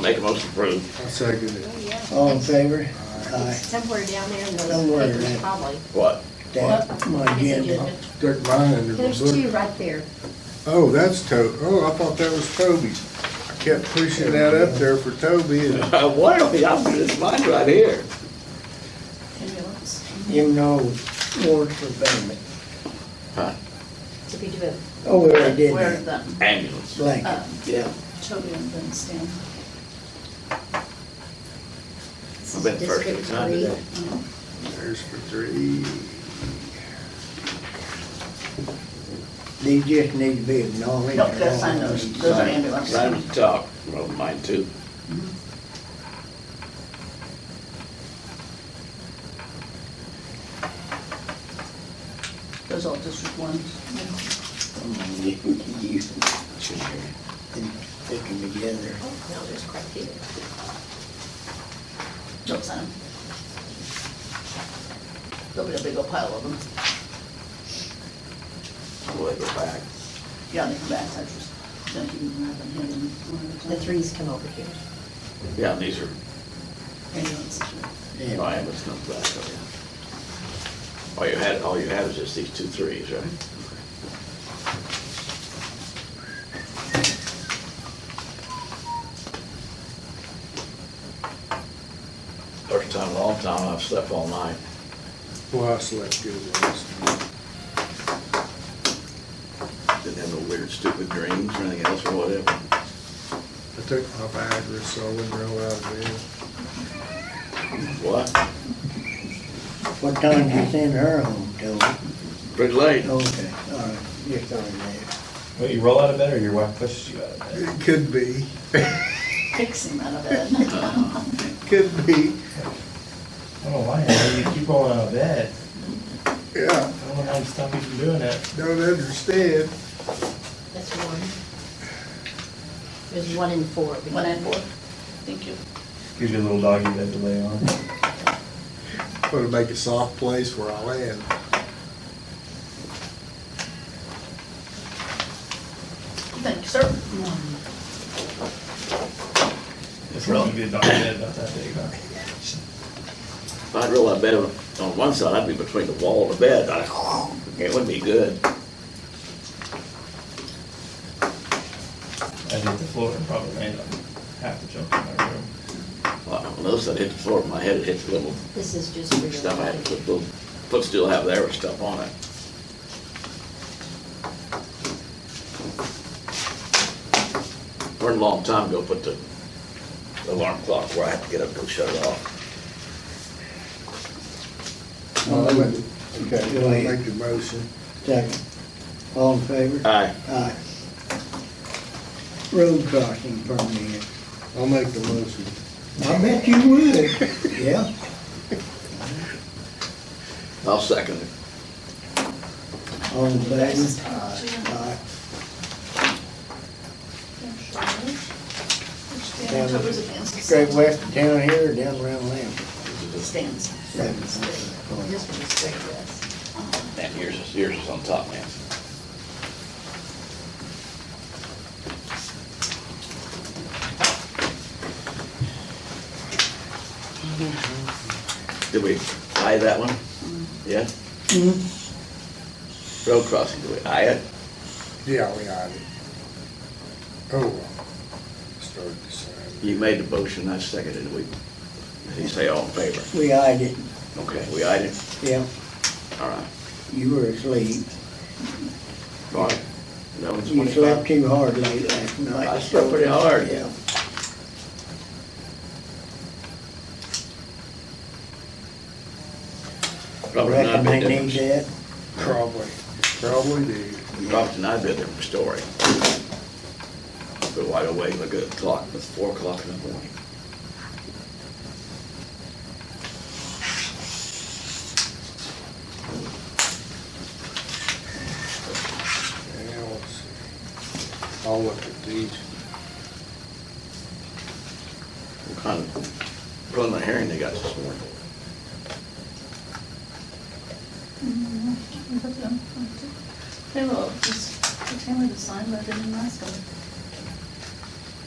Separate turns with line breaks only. make a motion to approve.
I'll second it.
All in favor?
Aye.
Aye.
Somewhere down there in
Don't worry,
those papers,
Rick.
probably.
What?
That, my agenda.
Took mine under
There's
the
two
book.
right there.
Oh, that's To, oh, I thought that was Toby's. I kept pushing that up there for Toby and
What are we, I'm, it's mine right here.
You know, warrants for payment.
Did we do it?
Oh, we already did
Where
that.
the,
Ambulance.
Blanket.
uh,
Yeah.
children been staying.
I bet the first thing's not today.
there's for three.
These just need to be acknowledged.
Nope, gotta sign those, those are ambulance.
Same as the top, well, mine too.
Those all district ones.
Come on, you, you,
Shouldn't hear
and stick them together.
Oh, no, there's quite a few.
Don't sign them. There'll be a big old pile of them.
you. Boy, go back.
Yeah, they come back, I just, don't even have them here. them one at a time.
The threes come over here.
Yeah, these are,
Ambulance.
no,
Yeah.
ambulance comes back, oh yeah. All you had, all you had was just these two threes, right? First time in a long time I've slept all night.
Well, I slept good last night.
Didn't have no weird stupid dreams or anything else or whatever.
I took my Viagra, so I wouldn't roll out of bed.
What?
What time did you send her home, Toby?
Pretty late.
Okay, all right, just on that.
Well, you roll out of bed or your wife pushes you out of bed?
It could be,
Fix him out of bed.
could be,
I don't know why, Andy, you keep rolling out of bed.
yeah,
I don't know how to stop you from doing that.
don't understand.
That's one. There's one and four. We-
One and four. Thank you.
Gives you a little doggy bed to lay on.
Wanna make a soft place where I land.
Thank you, sir.
It's really good doggy bed about that big, huh?
If I'd roll out of bed on on one side, I'd be between the wall and the bed. I- It wouldn't be good.
I'd hit the floor and probably land on half the junk in my room.
Well, On the other side, it hit the floor, my head it hit the little
This is just for your.
stuff I had to put, little footstool have there with stuff on it. Learned a long time ago, put the alarm clock where I have to get up and go shut it off.
Go
Okay,
ahead.
make the motion.
Second. All in favor?
Aye.
Aye. Road crossing permit.
I'll make the motion.
I bet you would. Yeah.
I'll second it.
All in favor? Aye.
Stand, Toby's against.
Straight west of town here, or down around Lambert.
Stands.
This one is straight west.
And yours is, yours is on top, man. Did we aye that one?
Mm-hmm.
Yeah? Road crossing, did we aye it?
Yeah, we got it. Oh, well, started to sign.
You made the motion, I seconded it, we, he say all in favor.
We eyed it,
Okay, we ayed it,
yeah.
all right.
You were asleep.
All right. That one's
You
twenty-five.
slept too hard late last night.
I slept pretty hard.
Yeah.
Probably not a
Reckon
bit
they need
different.
that.
Probably, probably do.
Robert and I did a different story. But wide awake, look at the clock, it's four o'clock in the morning.
Yeah, let's see. I'll look at these.
What kind of preliminary hearing they got this morning?
Mm-hmm. They will just, they tell me to sign, but I didn't ask them.